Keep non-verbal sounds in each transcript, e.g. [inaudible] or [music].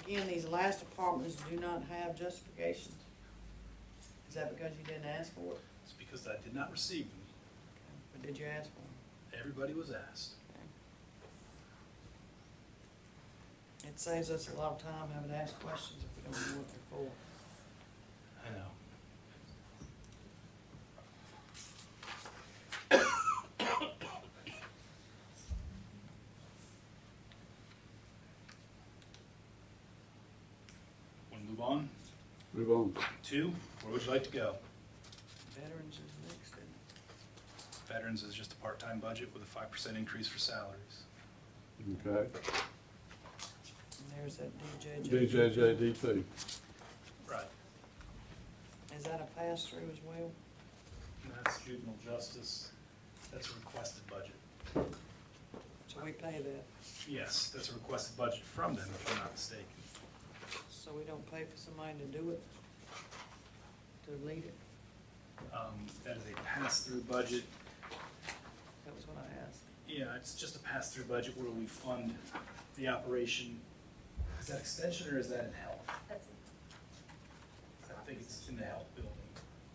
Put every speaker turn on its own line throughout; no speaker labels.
again, these last apartments do not have justification. Is that because you didn't ask for it,
It's because I did not receive them.
or did you ask for it?
Everybody was asked.
It saves us a lot of time having to ask questions if we don't know what they're for.
I know. Want to move on?
Move on.
Two, where would you like to go?
Veterans is next, isn't it?
Veterans is just a part-time budget with a five percent increase for salaries.
Okay.
and there's that DJJ.
DJJDP.
Right.
Is that a pass-through as well?
And that's juvenile justice. That's a requested budget.
So we pay that,
Yes, that's a requested budget from them, if I'm not mistaken.
so we don't pay for somebody to do it, to lead it?
Um, That is a pass-through budget
That was what I asked.
Yeah, it's just a pass-through budget where we fund the operation. Is that extension or is that in health?
That's,
I think it's in the health building.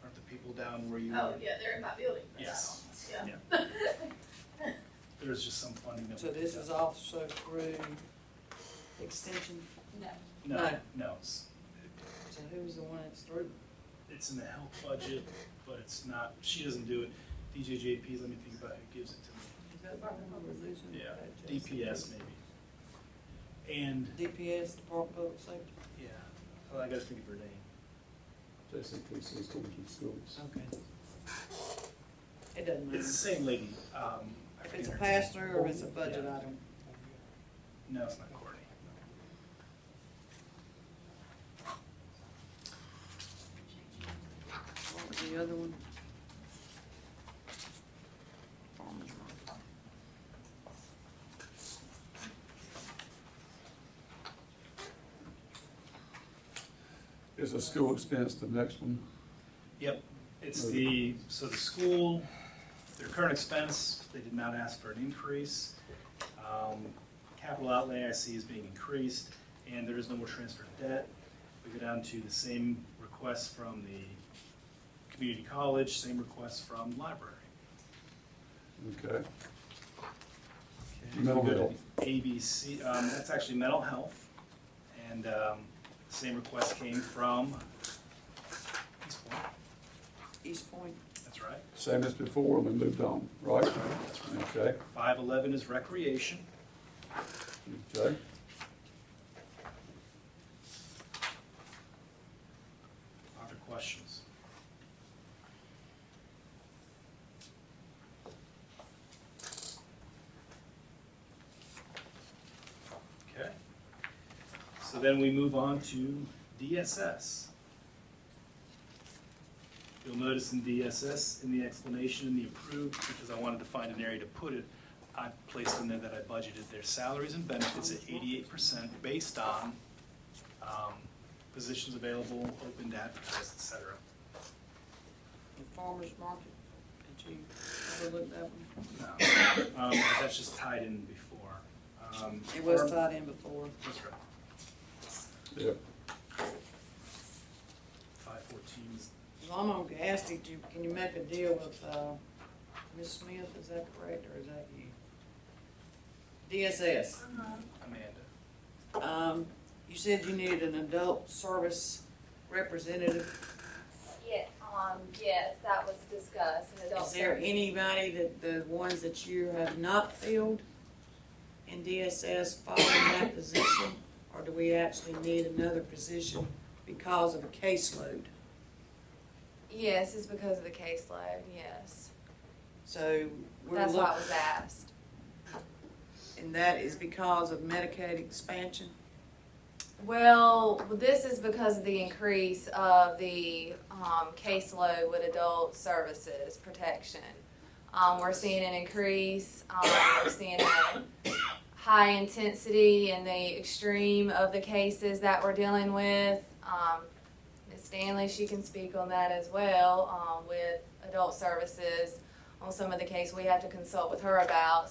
Aren't the people down where you?
oh, yeah, they're in my building.
Yes.
Yeah.
Yeah.
[laughs]
There's just some funding that.
So
we
this
picked
is
up.
also through extension,
No,
No,
No.
no, it's,
so who's the one that's through?
it's in the health budget, but it's not, she doesn't do it. DJJP, let me think about who gives it to
Is that the one we're losing?
me. Yeah,
That Jason?
DPS maybe. And,
DPS, Department of Public Safety?
yeah, well, I gotta think of her name.
JCP Systems and Schools.
Okay. It doesn't
It's the
matter.
same lady, um. I
If
forget
it's a
her name.
pass-through or it's a budget
Yeah.
item.
No, it's not Courtney.
What was the other one? Farmers market.
Is a school expense the next one?
Yep, it's the, so the school, their current expense, they did not ask for an increase. Um, Capital outlay I see is being increased, and there is no more transfer of debt. We go down to the same request from the community college, same request from library.
Okay.
We
Mental
go to
health.
ABC, um, that's actually mental health, and, um, same request came from East Point,
East Point,
that's right.
Same as before, and we moved on, right? Okay,
Five eleven is recreation.
okay.
Other questions? Okay. So then we move on to DSS. You'll notice in DSS, in the explanation, in the approved, because I wanted to find an area to put it, I placed in there that I budgeted their salaries and benefits at eighty-eight percent based on, um, positions available, open to advertise, et cetera.
the farmers market, did you overlook that one?
No, Um, but that's just tied in before. Um,
It was
farm-
tied in before.
That's right.
Yeah,
Five fourteen is,
Well, I'm gonna ask, did you, can you make a deal with, uh, Ms. Smith, is that correct, or is that you? DSS,
Amanda.
um, you said you needed an adult service representative.
Yeah, um, yes, that was discussed in adult.
Is there
service.
anybody that, the ones that you have not filled in DSS following that position? Or do we actually need another position because of a caseload?
Yes, it's because of the caseload, yes.
So we're
That's why I
looking,
was asked.
and that is because of Medicaid expansion?
Well, this is because of the increase of the, um, caseload with adult services protection. Um, we're seeing an increase, um, we're seeing a high intensity and the extreme of the cases that we're dealing with. Um, Ms. Stanley, she can speak on that as well, um, with adult services on some of the case we have to consult with her about,